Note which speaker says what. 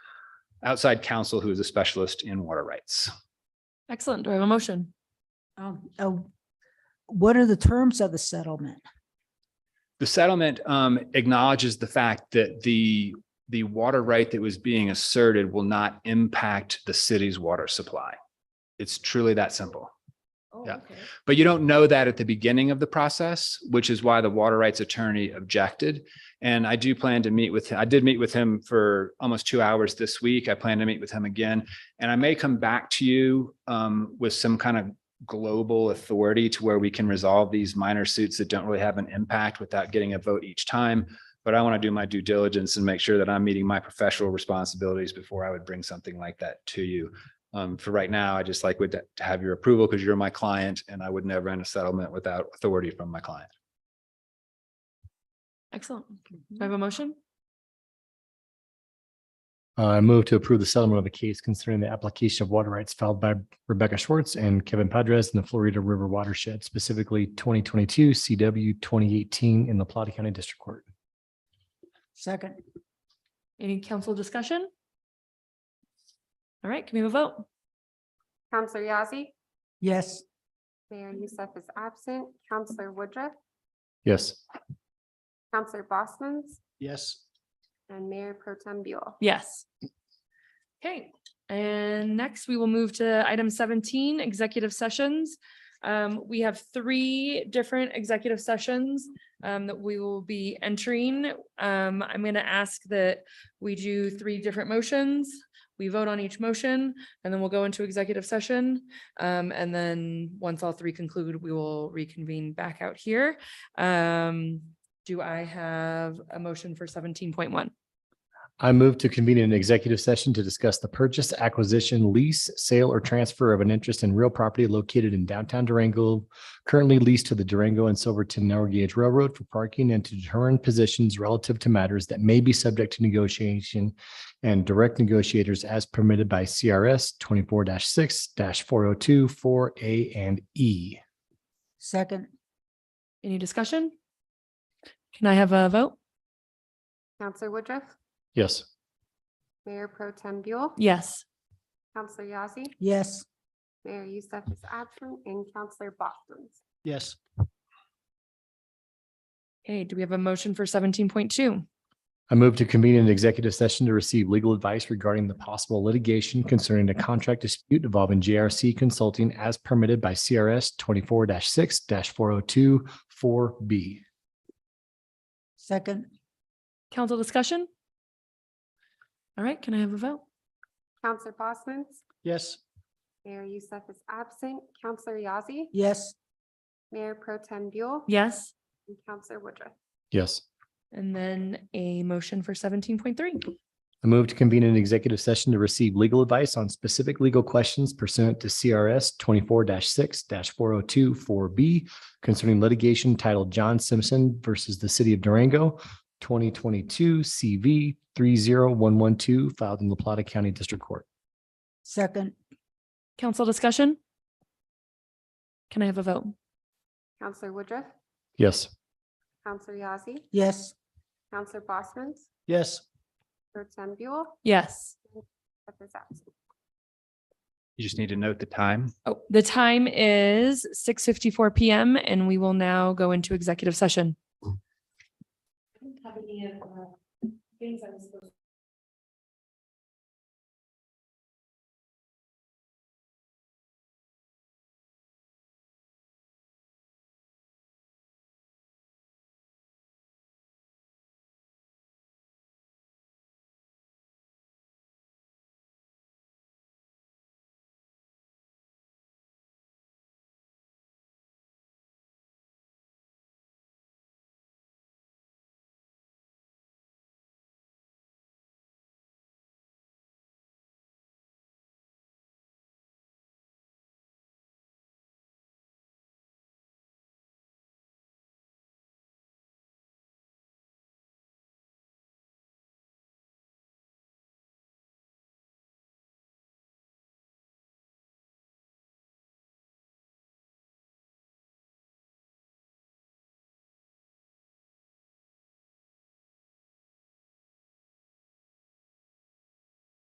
Speaker 1: outside counsel who is a specialist in water rights.
Speaker 2: Excellent. Do I have a motion?
Speaker 3: Um, oh, what are the terms of the settlement?
Speaker 1: The settlement um, acknowledges the fact that the, the water right that was being asserted will not impact the city's water supply. It's truly that simple. Yeah. But you don't know that at the beginning of the process, which is why the water rights attorney objected. And I do plan to meet with, I did meet with him for almost two hours this week. I plan to meet with him again. And I may come back to you um, with some kind of global authority to where we can resolve these minor suits that don't really have an impact without getting a vote each time. But I want to do my due diligence and make sure that I'm meeting my professional responsibilities before I would bring something like that to you. Um, for right now, I just like would to have your approval because you're my client and I would never end a settlement without authority from my client.
Speaker 2: Excellent. Do I have a motion?
Speaker 4: Uh, I move to approve the settlement of the case concerning the application of water rights filed by Rebecca Schwartz and Kevin Padres in the Florida River watershed, specifically twenty twenty-two CW twenty eighteen in the Plata County District Court.
Speaker 3: Second,
Speaker 2: Any council discussion? All right, can we have a vote?
Speaker 5: Counselor Yazzie,
Speaker 3: yes,
Speaker 5: Mayor Youssef is absent. Counselor Woodruff,
Speaker 4: Yes.
Speaker 5: Counselor Bosman's,
Speaker 4: Yes.
Speaker 5: and Mayor Pro Tem Buell.
Speaker 2: Yes. Okay, and next we will move to item seventeen, executive sessions. Um, we have three different executive sessions um, that we will be entering. Um, I'm gonna ask that we do three different motions. We vote on each motion and then we'll go into executive session. Um, and then once all three conclude, we will reconvene back out here. Um, do I have a motion for seventeen point one?
Speaker 4: I move to convene an executive session to discuss the purchase, acquisition, lease, sale, or transfer of an interest in real property located in downtown Durango, currently leased to the Durango and Silverton Narrow Gauge Railroad for parking and to determine positions relative to matters that may be subject to negotiation and direct negotiators as permitted by CRS twenty-four six four oh two four A and E.
Speaker 3: second,
Speaker 2: Any discussion? Can I have a vote?
Speaker 5: Counselor Woodruff,
Speaker 4: Yes.
Speaker 5: Mayor Pro Tem Buell,
Speaker 2: Yes.
Speaker 5: Counselor Yazzie,
Speaker 3: yes.
Speaker 5: Mayor Youssef is absent, and Counselor Bosman's.
Speaker 4: Yes.
Speaker 2: Okay, do we have a motion for seventeen point two?
Speaker 4: I move to convene an executive session to receive legal advice regarding the possible litigation concerning a contract dispute involving JRC Consulting as permitted by CRS twenty-four six four oh two four B.
Speaker 3: Second,
Speaker 2: Council discussion? All right, can I have a vote?
Speaker 5: Counselor Bosman's,
Speaker 4: Yes.
Speaker 5: Mayor Youssef is absent. Counselor Yazzie,
Speaker 3: yes,
Speaker 5: Mayor Pro Tem Buell,
Speaker 2: Yes.
Speaker 5: and Counselor Woodruff.
Speaker 4: Yes.
Speaker 2: And then a motion for seventeen point three.
Speaker 4: I move to convene an executive session to receive legal advice on specific legal questions pursuant to CRS twenty-four six four oh two four B concerning litigation titled John Simpson versus the City of Durango, twenty twenty-two CV three zero one one two filed in La Plata County District Court.
Speaker 3: second,
Speaker 2: Council discussion? Can I have a vote?
Speaker 5: Counselor Woodruff,
Speaker 4: Yes.
Speaker 5: Counselor Yazzie,
Speaker 3: yes,
Speaker 5: Counselor Bosman's,
Speaker 4: Yes.
Speaker 5: Pro Tem Buell,
Speaker 2: Yes.
Speaker 5: Youssef is absent.
Speaker 1: You just need to note the time.
Speaker 2: Oh, the time is six fifty-four PM and we will now go into executive session.
Speaker 5: Have any of, uh, things I was supposed